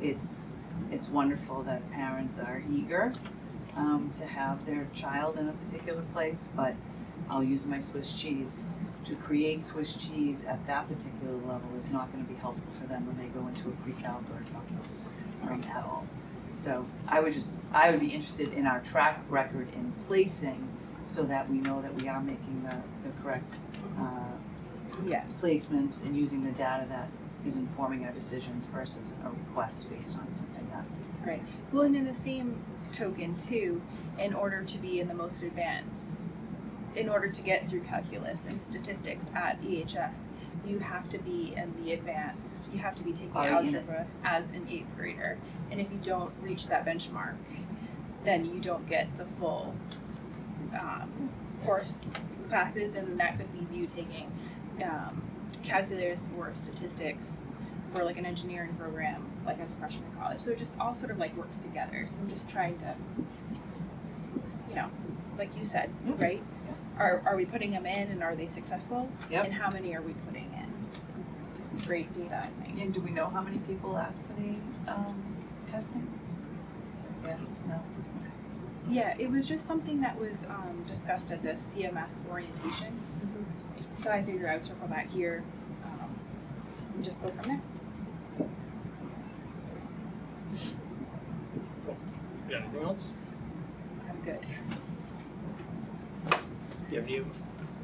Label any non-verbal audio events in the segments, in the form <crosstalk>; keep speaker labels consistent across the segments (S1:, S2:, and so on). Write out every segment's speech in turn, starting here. S1: it's, it's wonderful that parents are eager um, to have their child in a particular place, but I'll use my Swiss cheese. To create Swiss cheese at that particular level is not gonna be helpful for them when they go into a pre-calc or a calculus um, at all. So I would just, I would be interested in our track record in placing so that we know that we are making the, the correct uh,
S2: Yes.
S1: placements and using the data that is informing our decisions versus a request based on something that.
S2: Well, and in the same token, too, in order to be in the most advanced, in order to get through calculus and statistics at EHS, you have to be in the advanced, you have to be taking
S1: Already in it.
S2: algebra as an eighth grader. And if you don't reach that benchmark, then you don't get the full um, course classes, and that could leave you taking um, calculus or statistics for like an engineering program, like as a freshman in college. So it just all sort of like works together. So I'm just trying to, you know, like you said,
S1: Mhm.
S2: right? Are, are we putting them in and are they successful?
S1: Yep.
S2: And how many are we putting in? This is great data, I think.
S1: And do we know how many people ask for the um, testing? Yeah, no.
S2: Yeah, it was just something that was um, discussed at the CMS orientation. So I figured I would circle back here um, and just go from there.
S3: Yeah, anything else?
S2: I'm good.
S3: Do you have any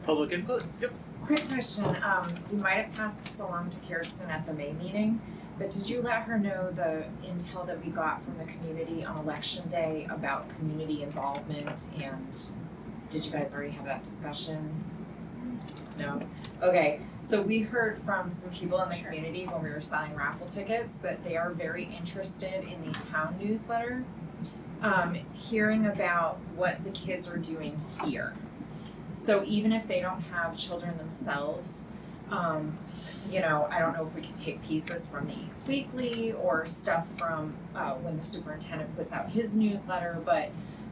S3: public input? Yep.
S4: Quick question, um, you might have passed this along to Kirsten at the May meeting, but did you let her know the intel that we got from the community on election day about community involvement and did you guys already have that discussion? No? Okay, so we heard from some people in the community when we were selling raffle tickets that they are very interested in the town newsletter. Um, hearing about what the kids are doing here. So even if they don't have children themselves, um, you know, I don't know if we could take pieces from the Eeks Weekly or stuff from uh, when the superintendent puts out his newsletter, but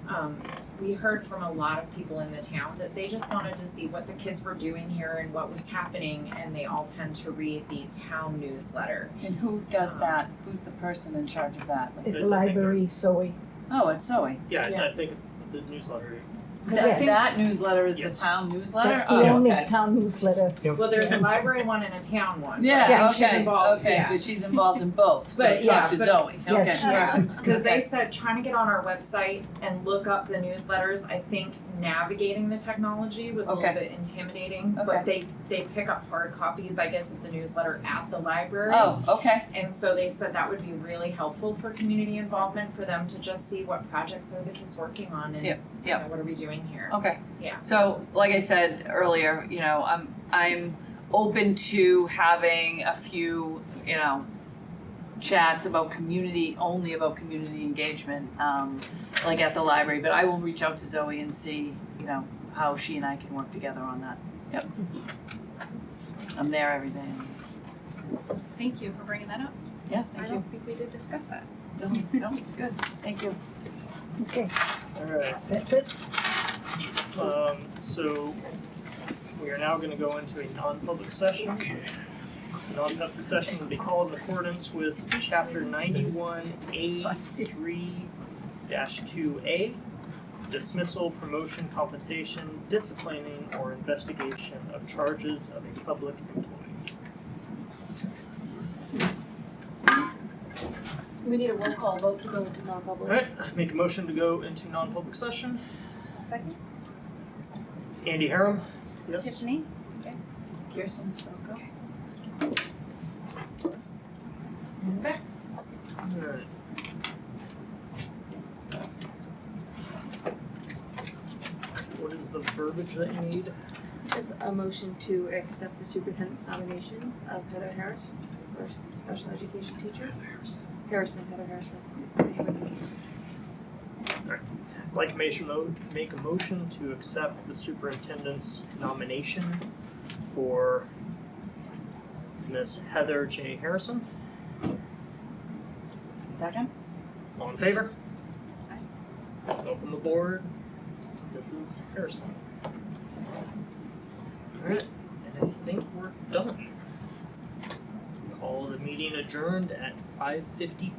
S4: um, we heard from a lot of people in the town that they just wanted to see what the kids were doing here and what was happening, and they all tend to read the town newsletter.
S1: And who does that? Who's the person in charge of that? Like,
S3: I
S5: At the
S3: think
S5: library, so we,
S1: oh, it's Zoe.
S3: Yeah,
S5: Yeah.
S3: I, I think the newsletter.
S4: Because I
S1: That,
S4: think
S1: that newsletter is the
S3: Yes.
S1: town newsletter?
S5: that's
S1: Oh,
S5: the only
S1: okay.
S5: town newsletter.
S4: well, there's a library one and a town one.
S1: Yeah,
S4: but she's
S1: okay,
S4: involved,
S1: okay,
S4: yeah.
S1: but she's involved in both, so
S4: But, yeah,
S1: talk to
S4: but-
S1: Zoe, okay.
S5: Yeah, she-
S4: Yeah,
S1: perfect.
S4: because
S1: Okay.
S4: they said trying to get on our website and look up the newsletters, I think navigating the technology was a
S1: Okay.
S4: little bit intimidating.
S1: Okay.
S4: But they they pick up hard copies, I guess, of the newsletter at the library.
S1: Oh, okay,
S4: And so they said that would be really helpful for community involvement for them to just see what projects are the kids working on and
S1: Yep,
S4: you
S1: yep.
S4: know, what are we doing here.
S1: okay.
S4: Yeah.
S6: So, like I said earlier, you know, I'm I'm open to having a few, you know, chats about community only about community engagement, um, like at the library. But I will reach out to Zoe and see, you know, how she and I can work together on that. Yep. I'm there every day.
S2: <laughs> Thank you for bringing that up.
S6: Yeah,
S2: I
S6: thank you.
S2: don't think we did discuss that.
S6: No, no, it's good. Thank you.
S5: Okay,
S3: Alright,
S5: that's it.
S3: um, so we are now gonna go into a non-public session. Okay. Non-public session will be called in accordance with chapter ninety-one A three two A. Dismissal, promotion, compensation, disciplining, or investigation of charges of a public employee.
S7: We need a roll call vote to go into non-public.
S3: Alright, make a motion to go into non-public session.
S2: Second,
S3: Andy Harum? Yes.
S2: Tiffany?
S1: Kirsten, go.
S3: Alright. What is the verbiage that you need?
S7: Just a motion to accept the superintendent's nomination of Heather Harris for special education teacher. Harrison, Heather Harrison.
S3: Like motion mode, make a motion to accept the superintendent's nomination for Miss Heather J. Harrison.
S1: Second?
S3: All in favor?
S2: Aye.
S3: Open the board. This is Harrison. Alright, and I think we're done. Call the meeting adjourned at five fifty